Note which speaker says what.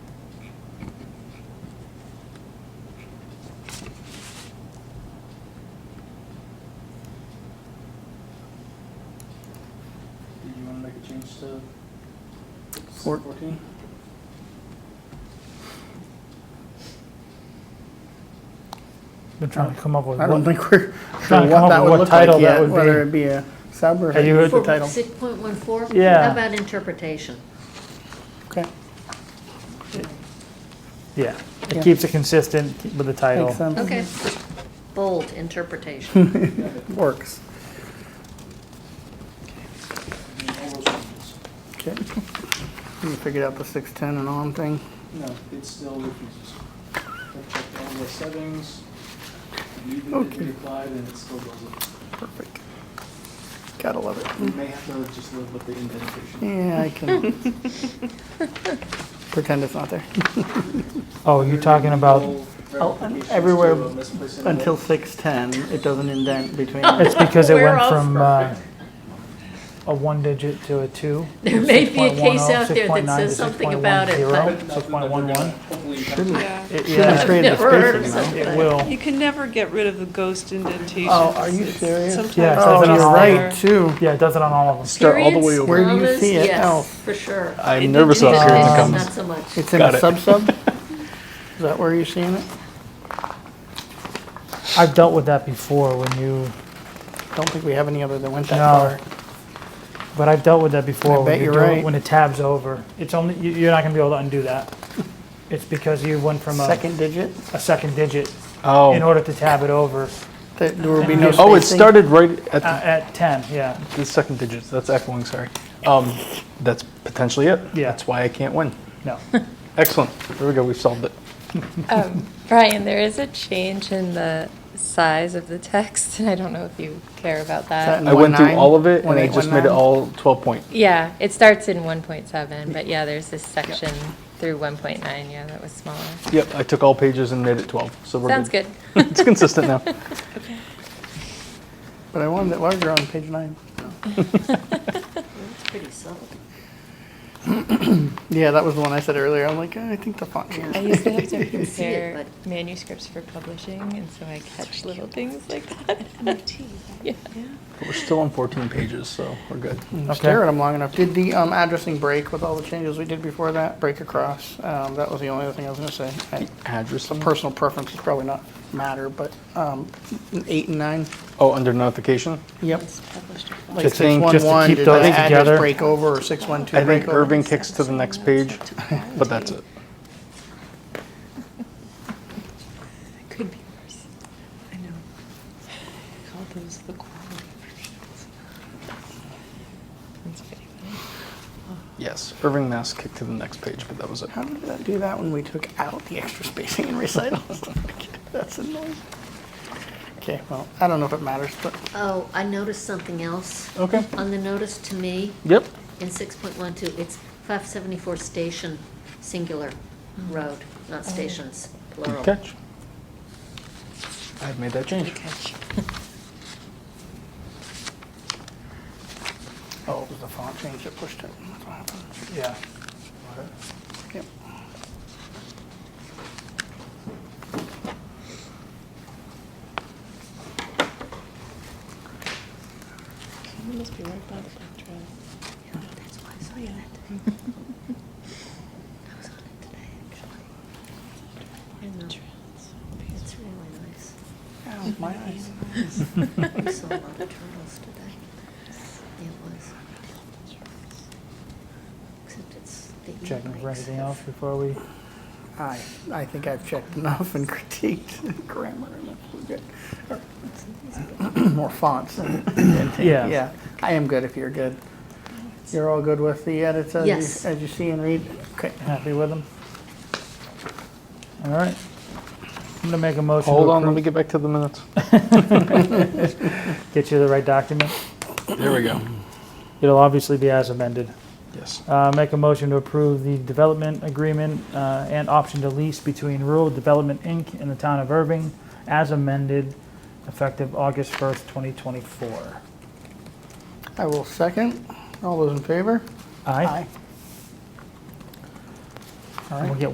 Speaker 1: to
Speaker 2: Four-
Speaker 1: fourteen?
Speaker 3: Been trying to come up with
Speaker 2: I don't
Speaker 3: what,
Speaker 2: think we're sure
Speaker 3: Trying to
Speaker 2: what
Speaker 3: come up
Speaker 2: that would
Speaker 3: with what
Speaker 2: look like
Speaker 3: title that
Speaker 2: yet,
Speaker 3: would be.
Speaker 2: whether it be a sub or
Speaker 3: Have you heard
Speaker 2: the
Speaker 3: the
Speaker 2: title.
Speaker 4: Six point one four?
Speaker 3: Yeah.
Speaker 4: How about interpretation?
Speaker 2: Okay,
Speaker 3: yeah.
Speaker 2: Yeah.
Speaker 3: It keeps it consistent with the title.
Speaker 2: makes sense.
Speaker 4: Okay. Bold, interpretation.
Speaker 2: Works. Okay. You figured out the six ten and on thing.
Speaker 1: No, it still refuses. I've checked all the settings, and even if
Speaker 2: Okay.
Speaker 1: we applied, and it still doesn't.
Speaker 2: Perfect. Gotta love
Speaker 1: We
Speaker 2: it.
Speaker 1: may have to just live with the indentation.
Speaker 2: Yeah, I can pretend it's not there
Speaker 3: Oh, you're talking about,
Speaker 1: Multiple verifications to
Speaker 2: everywhere
Speaker 1: a misplaced index.
Speaker 2: until six ten. It doesn't indent between.
Speaker 3: it's because it
Speaker 4: We're
Speaker 3: went
Speaker 4: all
Speaker 3: from uh, a one digit to a two.
Speaker 4: There may be a
Speaker 2: oh,
Speaker 4: case out there that says something about it,
Speaker 1: Nothing
Speaker 4: but
Speaker 1: that
Speaker 3: Six
Speaker 1: they're
Speaker 3: point one
Speaker 1: gonna
Speaker 3: one,
Speaker 1: hopefully have to-
Speaker 5: Yeah.
Speaker 2: It
Speaker 3: Yeah.
Speaker 2: should created the
Speaker 4: Never heard of
Speaker 2: spaces, you know?
Speaker 4: something.
Speaker 3: it will.
Speaker 5: You can never get rid of the ghost indentation.
Speaker 2: Oh, are you serious?
Speaker 5: Sometimes
Speaker 3: Yeah,
Speaker 5: it's
Speaker 3: so
Speaker 2: Oh,
Speaker 3: that's
Speaker 2: you're
Speaker 3: not
Speaker 2: right, too.
Speaker 3: Yeah, it does it on all of them.
Speaker 6: Start all the way
Speaker 4: periods,
Speaker 6: over.
Speaker 2: Where do you
Speaker 4: commas,
Speaker 2: see it? Oh.
Speaker 4: Yes, for sure.
Speaker 6: I'm nervous about periods and
Speaker 4: Interpretation, not
Speaker 6: commas.
Speaker 4: so much.
Speaker 2: It's in
Speaker 6: Got
Speaker 2: a
Speaker 6: it.
Speaker 2: sub-sub? Is that where you're seeing it?
Speaker 3: I've dealt with that before when you,
Speaker 2: Don't think we have any other that went that
Speaker 3: no.
Speaker 2: far.
Speaker 3: But I've dealt with that
Speaker 2: I
Speaker 3: before. when
Speaker 2: bet
Speaker 3: you
Speaker 2: you're
Speaker 3: do it-
Speaker 2: right.
Speaker 3: When it tabs over, it's only, you- you're not gonna be able to undo that. It's because you went from a,
Speaker 2: Second digit,
Speaker 3: a second digit in
Speaker 6: Oh,
Speaker 3: order to tab it over
Speaker 2: that there will be no
Speaker 6: oh, it
Speaker 2: spacing.
Speaker 6: started right
Speaker 3: uh,
Speaker 6: at
Speaker 3: at 10, yeah.
Speaker 6: the- the second digit. That's echoing, sorry. Um, that's potentially it.
Speaker 3: Yeah.
Speaker 6: That's why I can't win.
Speaker 3: No.
Speaker 6: Excellent. There we go. We've solved it.
Speaker 7: Um, Brian, there is a change in the size of the text, and I don't know if you care about
Speaker 2: That-
Speaker 7: that.
Speaker 6: I went through
Speaker 2: 1.9,
Speaker 6: all of it and I just made
Speaker 2: 1.819.
Speaker 6: it all 12 point.
Speaker 7: Yeah, it starts in 1.7, but yeah, there's this section through 1.9, yeah, that was smaller.
Speaker 6: Yep, I took all pages and made it 12. So we're
Speaker 7: Sounds good.
Speaker 6: It's consistent now.
Speaker 2: But I wanted it larger on page nine.
Speaker 4: It's pretty subtle.
Speaker 2: Yeah, that was the one I said earlier. I'm like, eh, I think the font
Speaker 7: I
Speaker 2: here.
Speaker 7: used to have to
Speaker 4: see it,
Speaker 7: compare manuscripts for publishing, and so I catch little things like that.
Speaker 6: But we're still on 14 pages, so we're good.
Speaker 2: You
Speaker 3: Okay.
Speaker 2: Stare at them long enough. Did the um, addressing break with all the changes we did before that? Break across? Um, That was the only other thing I was gonna say. I-
Speaker 6: Address
Speaker 2: The personal preference is probably not matter, but um, eight and nine,
Speaker 6: Oh, under notification?
Speaker 2: yep. Like
Speaker 3: Just to- just to
Speaker 2: 611,
Speaker 3: keep
Speaker 2: did that
Speaker 3: those
Speaker 2: address
Speaker 3: together.
Speaker 2: break over or 612
Speaker 6: I
Speaker 2: break
Speaker 6: think
Speaker 2: over?
Speaker 6: Irving kicks to the next page, but that's it.
Speaker 5: It could be worse. I know. I Call those the quality versions.
Speaker 7: That's pretty funny.
Speaker 6: Yes, Irving Mass kicked to the next page, but that was it.
Speaker 2: How did that do that when we took out the extra spacing and recitals? That's annoying. Okay, well, I don't know if it matters, but
Speaker 4: Oh, I noticed something else.
Speaker 6: Okay.
Speaker 4: On the notice to me,
Speaker 6: Yep.
Speaker 4: in six point one two, it's five seventy-four station, singular, road, not stations, plural.
Speaker 6: Good catch. I've made that change.
Speaker 2: oh, it was the font change that pushed it. That's what happened.
Speaker 3: Yeah.
Speaker 2: Yep.
Speaker 5: It must be right by the bike trail.
Speaker 4: Yeah, that's why I saw you that day. I was on it today, actually. I know. It's really nice.
Speaker 2: Ow, my eyes.
Speaker 4: I saw a lot of turtles today. It was. Except it's the.
Speaker 3: Checking for
Speaker 4: e-bikes
Speaker 3: anything
Speaker 4: have-
Speaker 3: else before we,
Speaker 2: I, I think I've checked enough and critiqued grammar and we're good. Or- More fonts. and- and-
Speaker 3: Yeah.
Speaker 2: Yeah, I am good if you're good. You're all good with the edits as
Speaker 4: Yes.
Speaker 2: you, as you see and read? Okay.
Speaker 3: happy with them? All right. I'm gonna make a motion
Speaker 6: Hold
Speaker 3: to
Speaker 6: on, let me
Speaker 3: approve.
Speaker 6: get back to the minutes.
Speaker 3: Get you the right document.
Speaker 6: There we go.
Speaker 3: It'll obviously be as amended.
Speaker 6: Yes.
Speaker 3: Uh, Make a motion to approve the development agreement uh, and option to lease between Rural Development, Inc. and the Town of Irving as amended, effective August 1st, 2024.
Speaker 2: I will second. All those in favor?
Speaker 3: Aye?
Speaker 2: All
Speaker 3: And
Speaker 2: right.
Speaker 3: we'll get